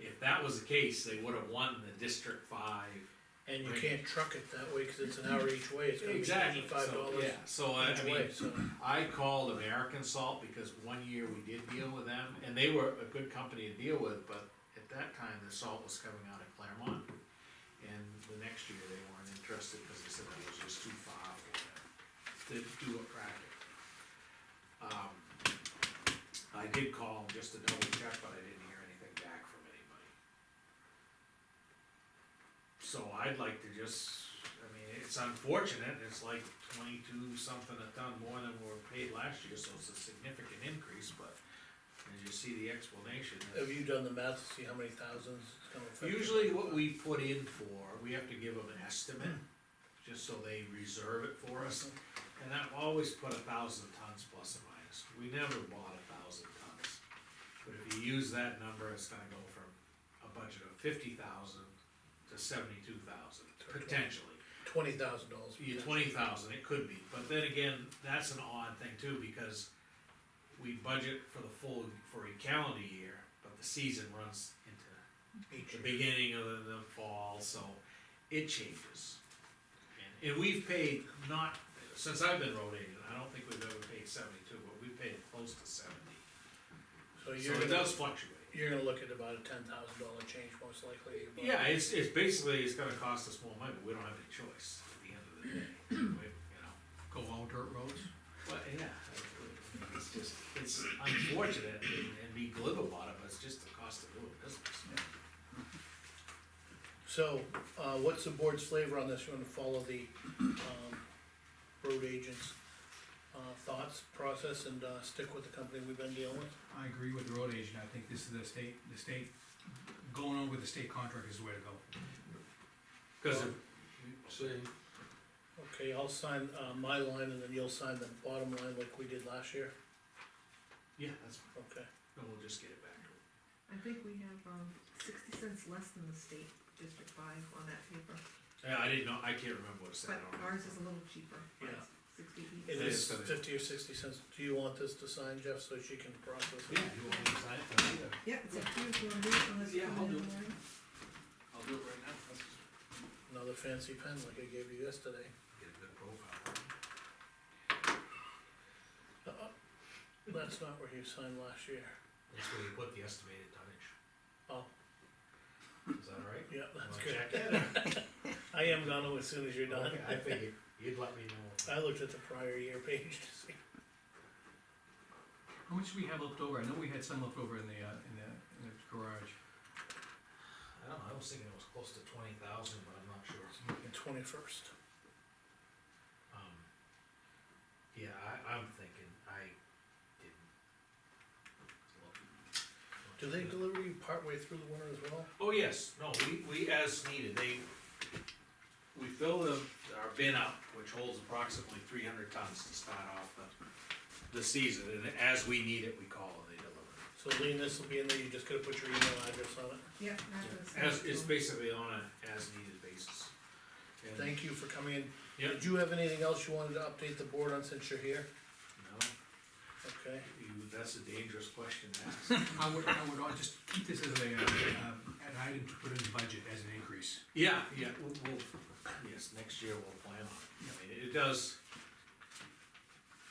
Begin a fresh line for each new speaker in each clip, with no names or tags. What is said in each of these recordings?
If that was the case, they would have won the District Five.
And you
Right.
can't truck it that way, cause it's an hour each way, it's gonna be
Exactly,
eighty-five
so,
dollars
yeah, so I
each
I mean,
way, so.
I called American Salt because one year we did deal with them, and they were a good company to deal with, but at that time, the salt was coming out of Claremont. And the next year, they weren't interested, cause they said that was just too far to do a project. Um, I did call just to double check, but I didn't hear anything back from anybody. So I'd like to just, I mean, it's unfortunate, it's like twenty-two something a ton more than we were paid last year, so it's a significant increase, but as you see the explanation. it's-
Have you done the math to see how many thousands it's gonna affect?
Usually what we put in for, we have to give them an estimate, just so they reserve it for us. And I've always put a thousand tons plus or minus, we never bought a thousand tons. But if you use that number, it's gonna go from a budget of fifty thousand to seventy-two thousand, potentially.
Twenty thousand dollars.
You twenty thousand, it could be, but then again, that's an odd thing too, because we budget for the full, for a calendar year, but the season runs into
Each,
the beginning of the, the fall, so it changes. And, and we've paid not, since I've been road agent, I don't think we've ever paid seventy-two, but we've paid close to seventy.
so
So
you're,
it
gonna-
does fluctuate.
you're gonna look at about a ten thousand dollar change most likely. about-
Yeah, it's, it's basically, it's gonna cost us more money, but we don't have any choice at the end of the day, we, you know.
Go all dirt roads?
But yeah, it's just, it's unfortunate and, and be glib about it, but it's just the cost of doing business.
So, uh, what's the board's flavor on this, you wanna follow the, um, road agent's, uh, thoughts, process, and, uh, stick with the company we've been dealing with?
I agree with the road agent, I think this is the state, the state, going on with the state contract is the way to go.
Cause if,
See,
Okay, I'll sign, uh, my line, and then you'll sign the bottom line like we did last year,
yeah, that's,
okay?
then we'll just get it back to
I think we have, um, sixty cents less than the state District Five on that paper,
Yeah, I didn't know, I can't remember what it said
but
on it.
ours is a little cheaper.
Yeah.
Ours is Sixty
It
each.
It
is
is gonna-
fifty or sixty cents, do you want this to sign, Jeff, so she can process it?
Yeah, you want me to sign it? Yeah.
Yeah, it's up to you if you wanna do it unless you
Yeah,
come
I'll
in
do
in
it.
the morning.
I'll do it right now. That's-
Another fancy pen like I gave you yesterday.
Get a good profile.
Uh-uh, That's not where you signed last year.
That's where you put the estimated tonnage.
Oh.
Is that all right?
Yeah, that's
Wanna
good.
check that?
I am gonna as soon as you're done.
Okay, I figured, you'd let me know.
I looked at the prior year page to see.
How much do we have left over? I know we had some left over in the, uh, in the, in the garage.
I don't know, I was thinking it was close to twenty thousand, but I'm not sure.
Twenty-first.
Um, yeah, I, I'm thinking, I didn't. look much
Do
at
they
it.
deliver you partway through the winter as well?
Oh, yes, no, we, we, as needed, they, we fill the, our bin up, which holds approximately three hundred tons to start off the, the season, and as we need it, we call and they deliver.
So Lean, this will be in there, you just gotta put your email address on it.
Yeah, that's.
As, it's basically on a as-needed basis. And-
Thank you for coming in.
Yep.
Did you have anything else you wanted to update the board on since you're here?
No,
Okay,
you, that's a dangerous question to ask.
I would, I would, i just keep this as a, uh, um, an item to put in the budget as an increase.
Yeah, yeah, we'll, we'll, yes, next year we'll plan on it, I mean, it does.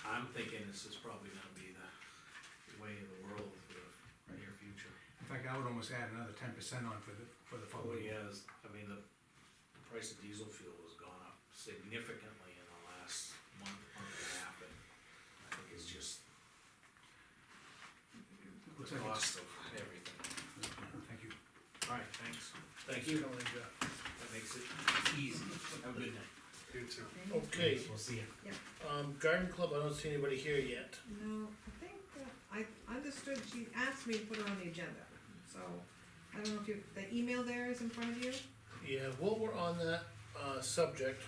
I'm thinking this is probably gonna be the way of the world for the near future.
In fact, I would almost add another ten percent on for the, for the
Oh,
following year.
yes, I mean, the price of diesel fuel has gone up significantly in the last month, month and a half, and I think it's just the
Looks like it's-
cost of everything.
Thank you.
Alright, thanks,
thanks for coming in, Jeff.
that makes it easy, have a good night.
You too.
Okay.
Okay,
We'll see you.
um, garden club, I don't see anybody here yet.
No, I think, that I understood, she asked me to put it on the agenda, so, I don't know if you, the email there is in front of you?
Yeah, while we're on that, uh, subject,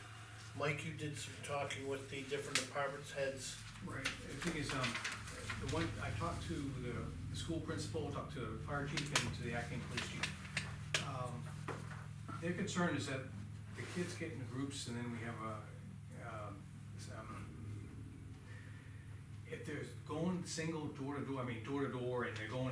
Mike, you did some talking with the different departments heads.
Right, the thing is, um, the one, I talked to the, the school principal, talked to the fire chief and to the acting police chief. Um, Their concern is that the kids get into groups and then we have a, um, some, if they're going single door to door, I mean, door to door, and they're going